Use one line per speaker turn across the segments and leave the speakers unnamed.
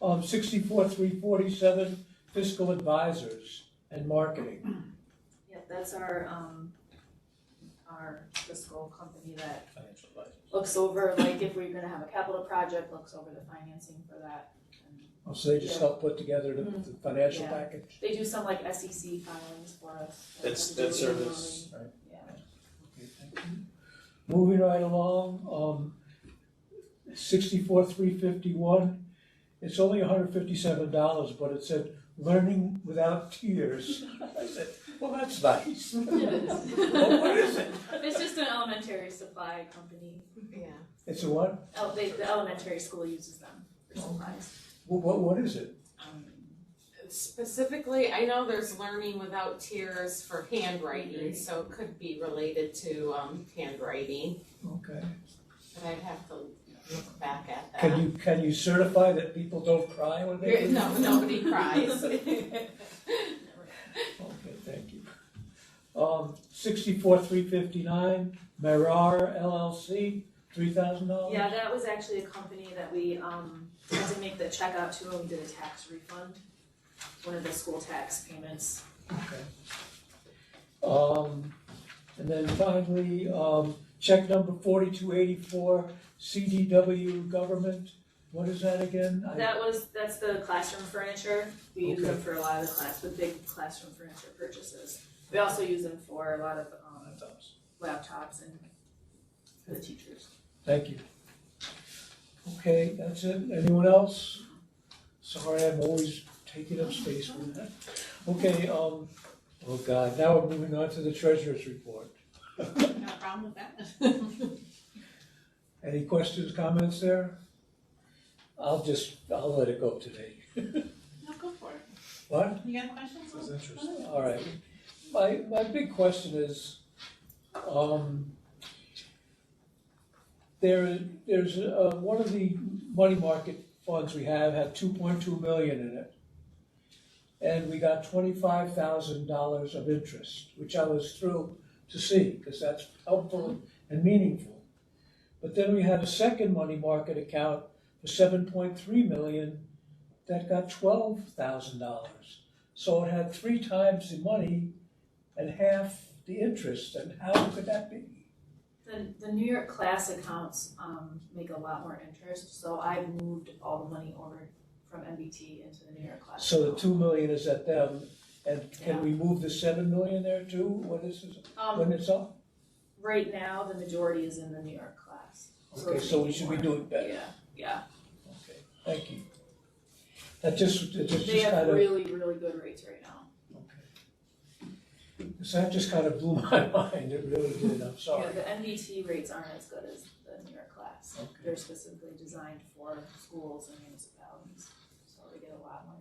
of sixty-four, three forty-seven fiscal advisors and marketing.
Yep, that's our, um, our fiscal company that
Financial advisors.
looks over, like, if we're gonna have a capital project, looks over the financing for that. And
Oh, So they just
Yeah. Mm-hmm.
help put together the, the financial
Yeah.
package?
They do some like SEC filings for us. like,
That's-
we do
that service.
annually.
Right.
Yeah,
Okay, thank you. Moving right along, um, sixty-four, three fifty-one. It's only hundred fifty-seven dollars, but it said, learning without tears. I said, well, that's nice.
it
Well,
is.
what is it?
It's just an elementary supply company.
Yeah.
It's a what?
Oh, they, the elementary school uses them for supplies.
What, what, what is it?
Um,
Specifically, I know there's learning without tears for handwriting, so it could be related to um, handwriting,
Okay.
but I'd have to look back at that.
Can you, can you certify that people don't cry when they?
Here- No, nobody cries.
Okay, thank you. Um, sixty-four, three fifty-nine, Merar LLC, three thousand dollars?
Yeah, that was actually a company that we, um, had to make the check out to when we did a tax refund, one of the school tax payments.
Okay. Um, and then finally, um, check number forty-two eighty-four, CDW Government, what is that again? I-
That was, that's the classroom furniture. We use them
Okay.
for a lot of the class, the big classroom furniture purchases. We also use them for a lot of, um, laptops and for the teachers.
Thank you. Okay, that's it, anyone else? Sorry, I'm always taking up space with that. Okay, um, oh God, now we're moving on to the treasurer's report.
No problem with that.
Any questions, comments there? I'll just, I'll let it go today.
No, go for it.
What?
You got questions?
That's interesting.
All right. My, my big question is, um, there, there's, uh, one of the money market funds we have had two point two million in it. And we got twenty-five thousand dollars of interest, which I was thrilled to see, because that's helpful and meaningful. But then we had a second money market account for seven point three million that got twelve thousand dollars. So it had three times the money and half the interest, and how could that be?
The, the New York class accounts, um, make a lot more interest, so I moved all the money over from MBT into the New York class.
So the
account.
two million is at them, and can we move the seven million there too, when this is, when
Um,
it's up?
right now, the majority is in the New York class.
Okay,
it's
so we
making
should be
more.
doing better,
Yeah, yeah,
okay, thank you. That just, that just
they
just
have
kind of,
really, really good rates right now.
okay. So that just kind of blew my mind, it really did, I'm sorry.
Yeah, the MBT rates aren't as good as the New York class.
Okay.
They're specifically designed for schools and municipalities, so they get a lot more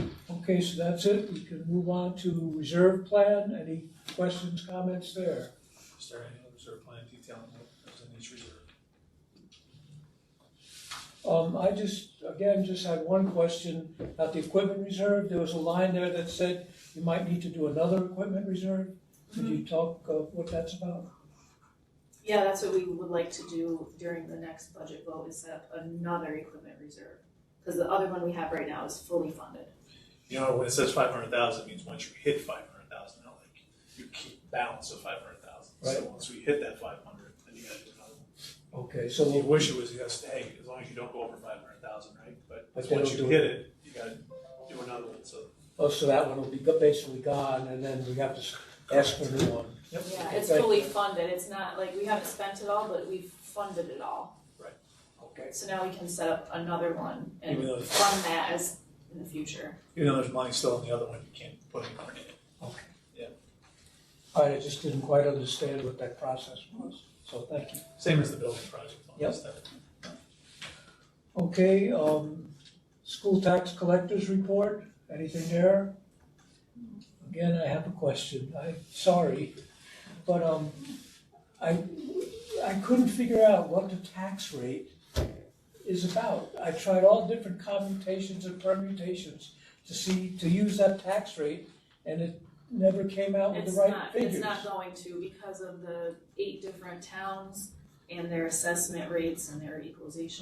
interest.
Okay, so that's it, we can move on to reserve plan, any questions, comments there?
Is there any other reserve plan detail on what goes in each reserve?
Um, I just, again, just had one question about the equipment reserve. There was a line there that said you might need to do another equipment reserve. Could you talk uh, what that's about?
Yeah, that's what we would like to do during the next budget vote, is set up another equipment reserve. Because the other one we have right now is fully funded.
You know, when it says five hundred thousand, it means once you hit five hundred thousand, now like, you keep balance of five hundred thousand. So
Right.
once we hit that five hundred, then you gotta do another one.
Okay,
So you
so,
wish it was, you gotta stay, as long as you don't go over five hundred thousand, right? But
But they
once
don't
you
do it.
hit it, you gotta do another one, so.
oh, so that one will be go- basically gone and then we have to s- ask for a new one.
Yep.
Yeah, it's
Okay.
fully funded. It's not like we haven't spent it all, but we've funded it all.
Okay.
So now we can set up another one and
Even though-
fund that as in the future.
Even though there's money still in the other one, you can't put any more in it.
Okay.
Yeah.
All right, I just didn't quite understand what that process was, so thank you.
Same as the building project. all that stuff.
Okay, um, school tax collectors report, anything there? Again, I have a question, I, sorry, but, um, I, I couldn't figure out what the tax rate is about. I tried all different commutations and permutations to see, to use that tax rate, and it never came out with
It's
the right
not,
figures.
it's not going to because of the eight different towns and their assessment rates and their equalization